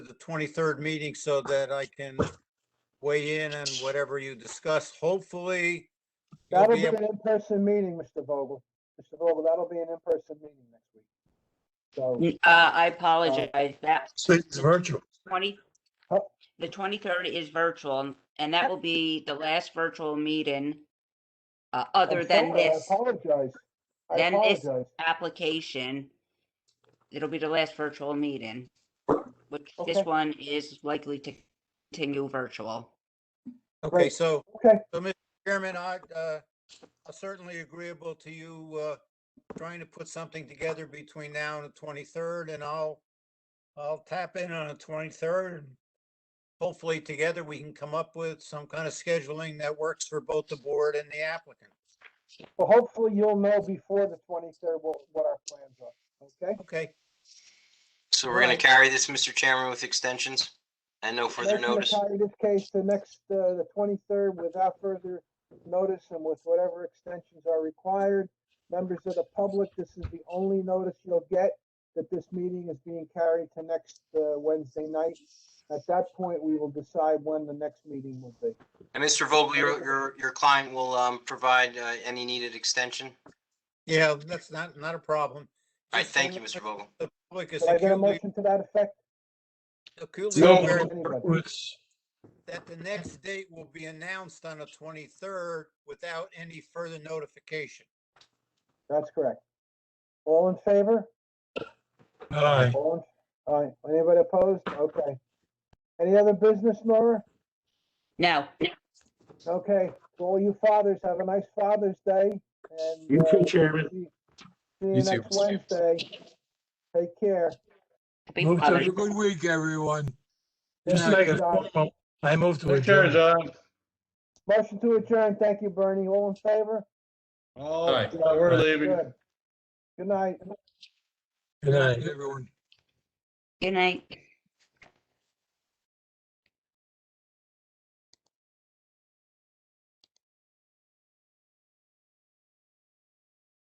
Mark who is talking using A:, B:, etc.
A: 23rd meeting so that I can weigh in on whatever you discuss. Hopefully, you'll
B: That'll
A: be
B: be
A: able-
B: an in-person meeting, Mr. Vogel. Mr. Vogel, that'll be an in-person meeting next week. So,
C: Uh, I apologize. That
D: Oh. So It's virtual.
C: twenty,
B: Oh.
C: the twenty-third is virtual and- and that will be the last virtual meeting uh, other
B: I'm
C: than
B: sorry,
C: this
B: I apologize. I
C: Than this.
B: apologize.
C: application. It'll be the last virtual meeting, which
B: Okay.
C: this one is likely to continue virtual.
A: okay,
B: Great.
A: so,
B: Okay,
A: so Mr. Chairman, I, uh, I'm certainly agreeable to you, uh, trying to put something together between now and the 23rd and I'll, I'll tap in on the 23rd. Hopefully, together we can come up with some kind of scheduling that works for both the board and the applicant.
B: well, hopefully you'll know before the twenty-third what, what our plans are, okay?
A: Okay,
E: So we're gonna
B: Right.
E: carry this, Mr. Chairman, with extensions and no further
B: Motion to
E: notice.
B: carry This case to next, uh, the twenty-third without further notice and with whatever extensions are required. Members of the public, this is the only notice you'll get that this meeting is being carried to next, uh, Wednesday night. At that point, we will decide when the next meeting will be.
E: And Mr. Vogel, your, your, your client will, um, provide, uh, any needed extension.
A: yeah, that's not, not a problem.
E: All right,
A: Just so
E: thank you,
A: much-
E: Mr. Vogel.
A: The public is
B: Did I get a
A: acutely,
B: motion to that effect?
A: acutely
D: No,
A: aware
D: it was-
A: that the next date will be announced on the twenty-third without any further notification.
B: That's correct. All in favor?
D: aye.
B: All, in- all right, anybody opposed? Okay. Any other business, Nora?
C: Now,
B: Okay, to all you fathers, have a nice Father's Day and.
D: You too,
B: uh,
D: Chairman.
B: See see you
F: You too.
B: next Wednesday. Take care.
C: happy
D: Move to-
C: Father's
G: Have a good week, everyone.
D: Just
B: Good
D: like a
B: night, John.
D: formal, I move to
F: Take care,
D: adjourn.
F: John.
B: Motion to adjourn. Thank you, Bernie. All in favor?
F: Oh, Aye.
B: yeah,
F: we're leaving.
B: Good. Good night.
D: Good night.
G: Everyone.
C: Good night.